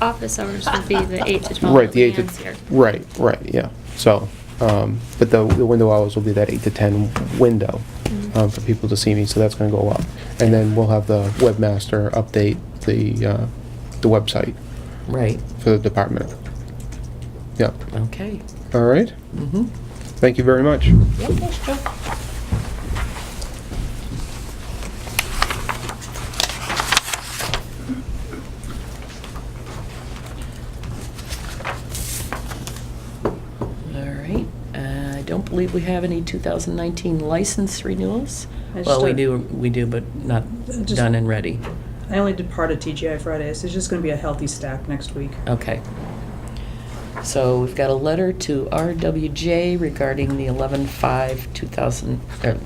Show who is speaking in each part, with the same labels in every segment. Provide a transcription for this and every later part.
Speaker 1: Office hours would be the 8 to 12.
Speaker 2: Um, Right, the 8
Speaker 1: hands
Speaker 2: to,
Speaker 1: here.
Speaker 2: right, right, yeah. So, um, but the, the window hours will be that 8 to 10 window um, for people to see me, so that's going to go up. And then we'll have the webmaster update the, uh, the website
Speaker 3: Right,
Speaker 2: for the department. Yeah,
Speaker 3: okay.
Speaker 2: all right?
Speaker 3: Mhm.
Speaker 2: Thank you very much.
Speaker 3: Yep, that's true. All right, uh, I don't believe we have any 2019 license renewals.
Speaker 4: I
Speaker 3: Well, we
Speaker 4: just-
Speaker 3: do, we do, but not
Speaker 4: Just-
Speaker 3: done and ready.
Speaker 4: I only did part of TGI Friday, so it's just gonna be a healthy stack next week.
Speaker 5: Oh,
Speaker 3: Okay. So we've got a letter to RWJ regarding the 11/5/2000, er,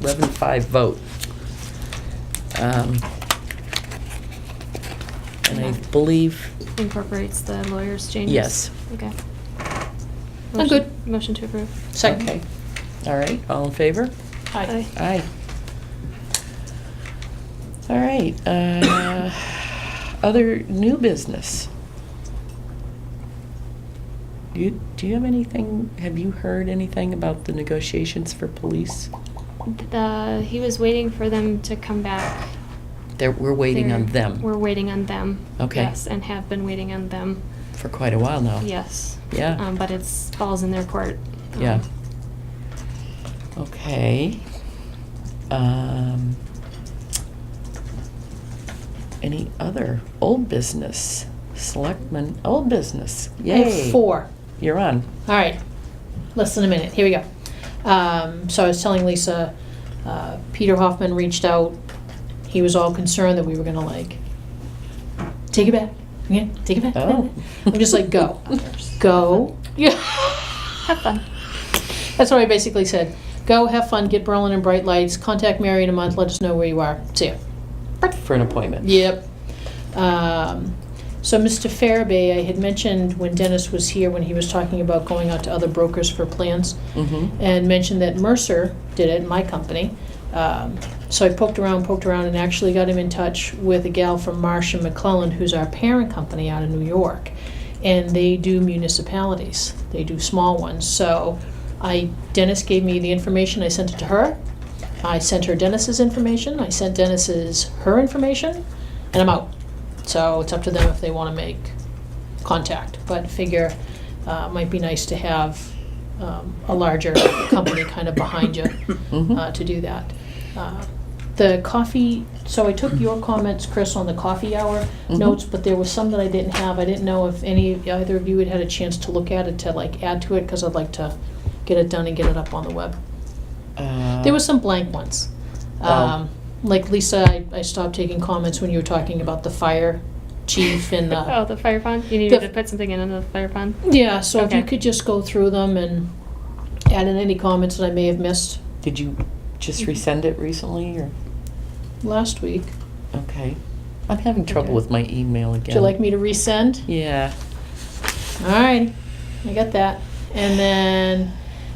Speaker 3: 11/5 vote. Um, And I believe,
Speaker 1: Incorporates the lawyer's changes.
Speaker 3: Yes.
Speaker 1: Okay.
Speaker 5: I'm good.
Speaker 1: Motion- Motion to approve.
Speaker 5: Second.
Speaker 3: okay, all right, all in favor?
Speaker 5: Aye.
Speaker 3: Aye. All right, uh, other new business. Do you, do you have anything, have you heard anything about the negotiations for police?
Speaker 1: The, he was waiting for them to come back.
Speaker 3: That we're waiting on
Speaker 1: They're-
Speaker 3: them.
Speaker 1: We're waiting on them.
Speaker 3: Okay.
Speaker 1: Yes, and have been waiting on them.
Speaker 3: For quite a while now.
Speaker 1: Yes.
Speaker 3: Yeah.
Speaker 1: Um, But it's, falls in their court. Um,
Speaker 3: Yeah. Okay. Um, any other old business? Selectmen, old business,
Speaker 5: I
Speaker 3: yay.
Speaker 5: have four.
Speaker 3: You're on.
Speaker 5: All right, less than a minute, here we go. Um, So I was telling Lisa, uh, Peter Hoffman reached out, he was all concerned that we were gonna like, take it back, yeah, take it back.
Speaker 3: Oh.
Speaker 5: I'm just like, go, go. Yeah.
Speaker 1: Have fun.
Speaker 5: That's what I basically said, go, have fun, get Berlin and bright lights, contact Mary in a month, let us know where you are, see ya.
Speaker 3: For an appointment.
Speaker 5: Yep. Um, So, Mr. Farabee, I had mentioned when Dennis was here, when he was talking about going out to other brokers for plans,
Speaker 3: Mm-hmm.
Speaker 5: and mentioned that Mercer did it, my company. Um, So I poked around, poked around, and actually got him in touch with a gal from Marsh and McClellan, who's our parent company out of New York. And they do municipalities, they do small ones. So I, Dennis gave me the information, I sent it to her. I sent her Dennis's information, I sent Dennis's her information, and I'm out. So it's up to them if they want to make contact, but figure uh, it might be nice to have um, a larger company kind of behind you
Speaker 3: Mm-hmm.
Speaker 5: uh, to do that. Uh, The coffee, so I took your comments, Chris, on the coffee hour
Speaker 3: Mhm.
Speaker 5: notes, but there was some that I didn't have. I didn't know if any, either of you had had a chance to look at it to like add to it, because I'd like to get it done and get it up on the web.
Speaker 3: Uh,
Speaker 5: There were some blank ones. Um, Like Lisa, I- I stopped taking comments when you were talking about the fire chief and
Speaker 3: uh,
Speaker 5: the
Speaker 1: Oh, the fire pond? You needed
Speaker 5: The-
Speaker 1: to put something in under the fire pond?
Speaker 5: Yeah, so if you
Speaker 1: Okay.
Speaker 5: could just go through them and add in any comments that I may have missed
Speaker 3: Did you just
Speaker 5: Mm-hmm.
Speaker 3: resend it recently, or
Speaker 5: last week.
Speaker 3: okay? I'm having trouble
Speaker 5: Okay.
Speaker 3: with my email again.
Speaker 5: Would you like me to resend?
Speaker 3: Yeah.
Speaker 5: All right, I got that. And then,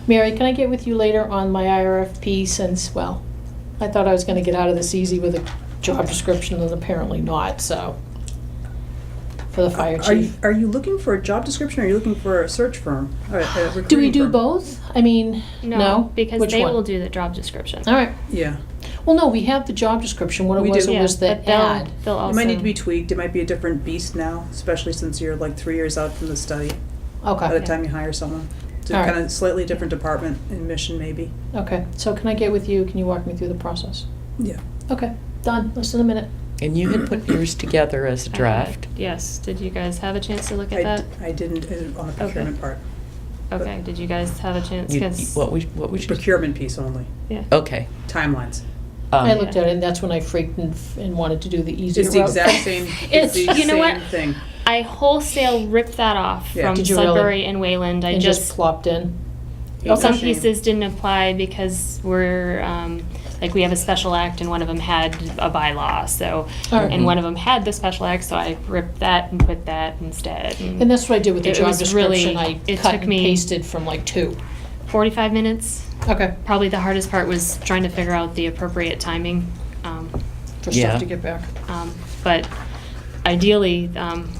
Speaker 5: Mary, can I get with you later on my IRFP since, well, I thought I was gonna get out of this easy with a job description and apparently not, so. For the fire
Speaker 4: Uh, Are you,
Speaker 5: chief.
Speaker 4: are you looking for a job description, or are you looking for a search firm? or a- a
Speaker 5: Do we
Speaker 4: uh, recruiting
Speaker 5: do
Speaker 4: firm?
Speaker 5: both? I mean, no?
Speaker 1: Because
Speaker 5: Which
Speaker 1: they
Speaker 5: one?
Speaker 1: will do the job description.
Speaker 5: All right,
Speaker 4: Yeah.
Speaker 5: well, no, we have the job description, what it
Speaker 4: We
Speaker 5: was,
Speaker 4: do.
Speaker 5: it was the
Speaker 1: but they'll-
Speaker 5: ad.
Speaker 1: They'll also.
Speaker 4: It might need to be tweaked, it might be a different beast now, especially since you're like three years out from the study, by the
Speaker 5: Okay,
Speaker 4: time you hire someone. So
Speaker 5: All right.
Speaker 4: kind of slightly different department and mission maybe.
Speaker 5: okay, so can I get with you, can you walk me through the process?
Speaker 4: Yeah.
Speaker 5: Okay, done, less than a minute.
Speaker 3: And you had put yours together as a
Speaker 1: I-
Speaker 3: draft.
Speaker 1: Uh, Yes. Did you guys have a chance to look
Speaker 4: I
Speaker 1: at that?
Speaker 4: I didn't, uh, on the procurement part,
Speaker 1: Okay, did you guys have a chance?
Speaker 3: You- oh.
Speaker 1: 'Cause-
Speaker 3: what we what we should
Speaker 4: procurement piece only,
Speaker 1: Yeah.
Speaker 3: Okay.
Speaker 4: timelines.
Speaker 3: Um,
Speaker 5: I looked at it, and that's when I freaked and, and wanted to do the easier
Speaker 4: It's the
Speaker 5: route.
Speaker 4: exact same,
Speaker 1: It's-
Speaker 4: it's the
Speaker 1: you know
Speaker 4: same
Speaker 1: what?
Speaker 4: thing.
Speaker 1: I wholesale ripped that off
Speaker 4: Yeah.
Speaker 1: from
Speaker 5: Did you really?
Speaker 1: Sudbury and Wayland. I
Speaker 5: And just
Speaker 1: just,
Speaker 5: plopped in.
Speaker 4: Okay.
Speaker 1: some
Speaker 4: Shame.
Speaker 1: pieces didn't apply because we're, um, like, we have a special act and one of them had a bylaw, so,
Speaker 5: All right.
Speaker 1: and one of them had the special act, so I ripped that and put that instead.
Speaker 5: And that's what I did with the
Speaker 1: Mm. It
Speaker 5: job
Speaker 1: was really-
Speaker 5: description, I
Speaker 1: it
Speaker 5: cut
Speaker 1: took
Speaker 5: and
Speaker 1: me-
Speaker 5: pasted from like two.
Speaker 1: Forty-five minutes,
Speaker 5: Okay,
Speaker 1: probably the hardest part was trying to figure out the appropriate timing, um,
Speaker 5: for
Speaker 3: Yeah.
Speaker 5: stuff to get back.
Speaker 1: Um, But ideally, um,